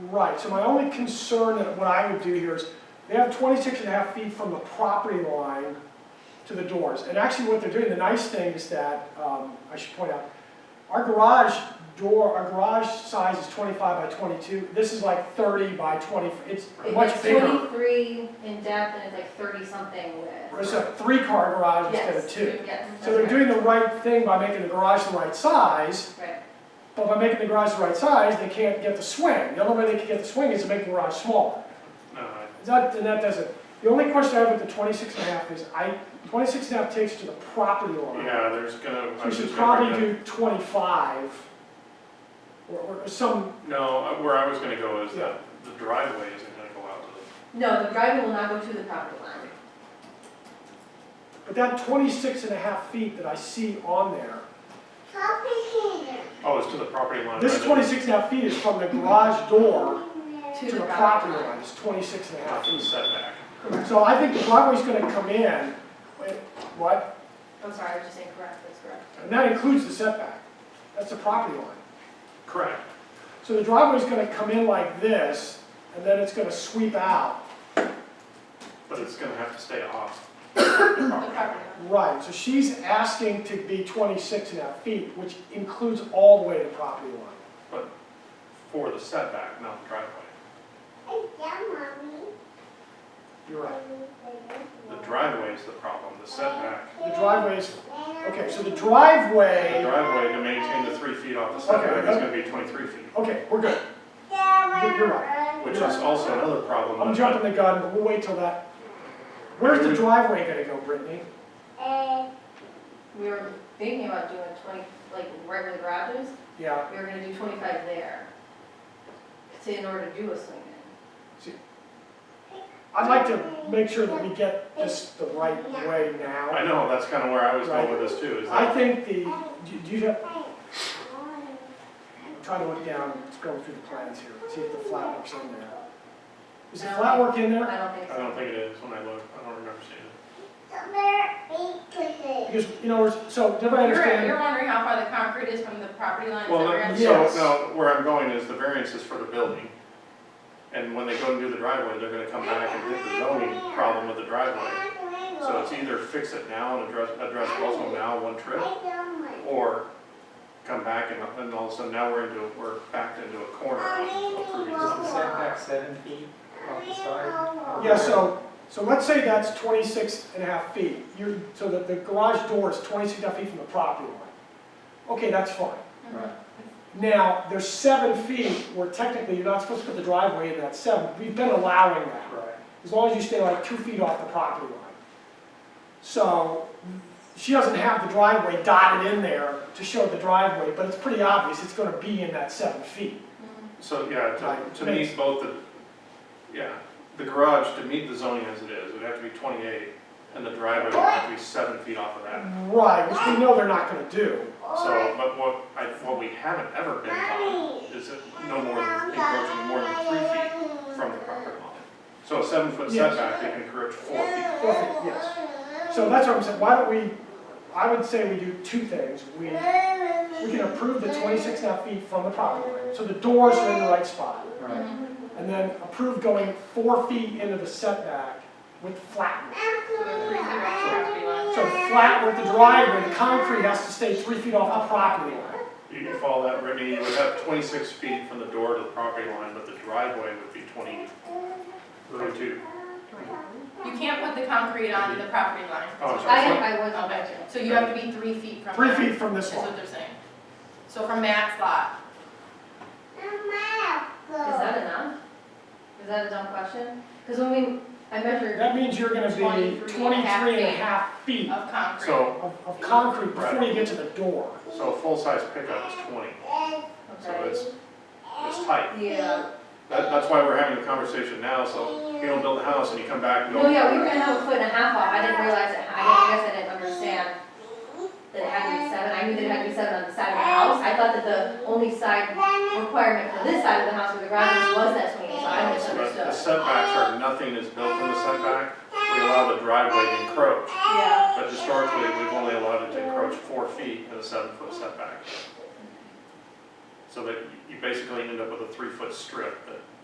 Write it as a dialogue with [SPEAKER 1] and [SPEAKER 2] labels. [SPEAKER 1] Right, so my only concern that what I would do here is, they have 26 and a half feet from the property line to the doors. And actually what they're doing, the nice thing is that, um, I should point out, our garage door, our garage size is 25 by 22. This is like 30 by 20, it's
[SPEAKER 2] It's
[SPEAKER 1] much
[SPEAKER 2] like
[SPEAKER 1] bigger.
[SPEAKER 2] twenty-three in depth and it's like thirty-something width.
[SPEAKER 1] It's a three-car garage instead of
[SPEAKER 2] Yes,
[SPEAKER 1] two.
[SPEAKER 2] yes,
[SPEAKER 1] So they're
[SPEAKER 2] that's
[SPEAKER 1] doing the right thing by making the garage the right size,
[SPEAKER 2] right. Right,
[SPEAKER 1] But by making the garage the right size, they can't get the swing. The only way they can get the swing is to make the garage smaller.
[SPEAKER 3] No, I-
[SPEAKER 1] That, and that doesn't, the only question I have with the 26 and a half is, I, 26 and a half takes you to the property line.
[SPEAKER 3] yeah, there's gonna.
[SPEAKER 1] So
[SPEAKER 3] I'm
[SPEAKER 1] we should
[SPEAKER 3] just gonna
[SPEAKER 1] probably
[SPEAKER 3] bring
[SPEAKER 1] do 25, or, or some,
[SPEAKER 3] that- No, I- where I was gonna go is that the driveway isn't gonna go out to the,
[SPEAKER 2] no, the driveway will not go to the property line.
[SPEAKER 1] but that 26 and a half feet that I see on there,
[SPEAKER 4] Complicated.
[SPEAKER 3] oh, it's to the property line.
[SPEAKER 1] this
[SPEAKER 3] right?
[SPEAKER 1] 26 and a half feet is from the garage door
[SPEAKER 2] To
[SPEAKER 1] to
[SPEAKER 2] the
[SPEAKER 1] the property
[SPEAKER 2] property line.
[SPEAKER 1] line, it's 26 and a half
[SPEAKER 3] Half
[SPEAKER 1] feet.
[SPEAKER 3] the setback.
[SPEAKER 2] Correct,
[SPEAKER 1] So I think the driveway's gonna come in, wait, what?
[SPEAKER 2] I'm sorry, I was just saying correct, that's correct.
[SPEAKER 1] And that includes the setback. That's the property line.
[SPEAKER 3] Correct.
[SPEAKER 1] So the driveway's gonna come in like this, and then it's gonna sweep out.
[SPEAKER 3] But it's gonna have to stay off.
[SPEAKER 2] The property line.
[SPEAKER 1] Right, so she's asking to be 26 and a half feet, which includes all the way to the property line.
[SPEAKER 3] For the setback, not the driveway.
[SPEAKER 1] You're right.
[SPEAKER 3] The driveway is the problem, the setback.
[SPEAKER 1] The driveway is, okay, so the
[SPEAKER 3] The
[SPEAKER 1] driveway,
[SPEAKER 3] driveway to maintain the three feet off the setback is gonna be twenty-three feet,
[SPEAKER 1] okay, we're good.
[SPEAKER 4] You're
[SPEAKER 3] which is also another problem.
[SPEAKER 1] I'm jumping the gun, but we'll wait till that. Where's the driveway gonna go, Brittany?
[SPEAKER 2] We were thinking about doing twenty, like right where the garage is,
[SPEAKER 1] Yeah,
[SPEAKER 2] we were gonna do twenty-five there. To, in order to do a swing in.
[SPEAKER 1] I'd like to make sure that we get this the right way now.
[SPEAKER 3] I know, that's kinda where I was going with this too, is
[SPEAKER 1] I
[SPEAKER 3] that,
[SPEAKER 1] think the, do- do you have, Try to look down, let's go through the plans here, see if the flat work's in there. Is the flat work in there?
[SPEAKER 2] I don't think
[SPEAKER 3] I
[SPEAKER 2] so.
[SPEAKER 3] don't think it is when I look, I don't remember seeing it.
[SPEAKER 1] Because, you know, we're- so, does everybody
[SPEAKER 5] You're,
[SPEAKER 1] understand?
[SPEAKER 5] you're wondering how far the concrete is from the property line? is
[SPEAKER 3] Well,
[SPEAKER 5] that what you're
[SPEAKER 3] no-
[SPEAKER 5] asking?
[SPEAKER 3] so,
[SPEAKER 1] Yes.
[SPEAKER 3] no, where I'm going is the variance is for the building. And when they go and do the driveway, they're gonna come back and hit the zoning problem with the driveway. So it's either fix it now and address, address Boswell now, one trip, or come back and, and all of a sudden now we're into, we're backed into a corner. of approving
[SPEAKER 6] Is the
[SPEAKER 3] something.
[SPEAKER 6] setback seven feet off the side?
[SPEAKER 1] Yeah, so, so let's say that's 26 and a half feet. You're, so the, the garage door is 26 and a half feet from the property line. Okay, that's fine.
[SPEAKER 6] Right.
[SPEAKER 1] Now, there's seven feet where technically you're not supposed to put the driveway in that seven. We've been allowing that.
[SPEAKER 6] Right.
[SPEAKER 1] as long as you stay like two feet off the property line. So she doesn't have the driveway dotted in there to show the driveway, but it's pretty obvious it's gonna be in that seven feet.
[SPEAKER 3] So, yeah,
[SPEAKER 1] Right.
[SPEAKER 3] to, to meet both the, yeah, the garage, to meet the zoning as it is, would have to be twenty-eight, and the driveway would have to be seven feet off of that.
[SPEAKER 1] Right, which we know they're not gonna do.
[SPEAKER 3] So, but what, I, what we haven't ever been on is that no more than, encroaching more than three feet from the property line. So a seven-foot
[SPEAKER 1] Yes.
[SPEAKER 3] setback, they can encroach four feet.
[SPEAKER 1] So that's what I'm saying, why don't we, I would say we do two things. We, we
[SPEAKER 4] We
[SPEAKER 1] can approve the 26 and a half feet from the property line, so the doors are in the right spot.
[SPEAKER 6] Right.
[SPEAKER 2] Mm-hmm.
[SPEAKER 1] And then approve going four feet into the setback with flat roof. So flat with the driveway, the concrete has to stay three feet off the property line.
[SPEAKER 3] You can follow that, Brittany, you would have twenty-six feet from the door to the property line, but the driveway would be twenty, twenty-two.
[SPEAKER 5] You can't put the concrete on the property line.
[SPEAKER 3] Oh, I'm
[SPEAKER 2] I,
[SPEAKER 3] sorry,
[SPEAKER 2] I was on
[SPEAKER 5] Okay,
[SPEAKER 2] that too.
[SPEAKER 5] so you have to be three feet from.
[SPEAKER 1] Three
[SPEAKER 5] there,
[SPEAKER 1] feet from this
[SPEAKER 5] Is
[SPEAKER 1] one.
[SPEAKER 5] what they're saying. So from Matt's lot,
[SPEAKER 2] Is that enough? Is that a dumb question? Because when we, I measured
[SPEAKER 1] That means you're gonna be
[SPEAKER 5] 23 and a half
[SPEAKER 1] twenty-three and a half feet
[SPEAKER 5] of concrete.
[SPEAKER 3] so,
[SPEAKER 1] of, of concrete before you get to the door.
[SPEAKER 3] so a full-size pickup is twenty, so
[SPEAKER 2] Okay.
[SPEAKER 3] it's, it's tight.
[SPEAKER 2] Yeah,
[SPEAKER 3] That, that's why we're having the conversation now, so you don't build a house and you come back and go.
[SPEAKER 2] no, yeah, we were gonna have a foot and a half off, I didn't realize, it. I didn't- I guess I didn't understand that it had to be seven, I knew that it had to be seven on the side of the house, I thought that the only side requirement for this side of the house with the garage was that swing, so I
[SPEAKER 3] So the- The
[SPEAKER 2] misunderstood.
[SPEAKER 3] setbacks are, nothing is built from the setback, we allow the driveway to encroach,
[SPEAKER 2] Yeah,
[SPEAKER 3] but historically, we've only allowed it to encroach four feet in a seven-foot setback. So that you basically end up with a three-foot strip that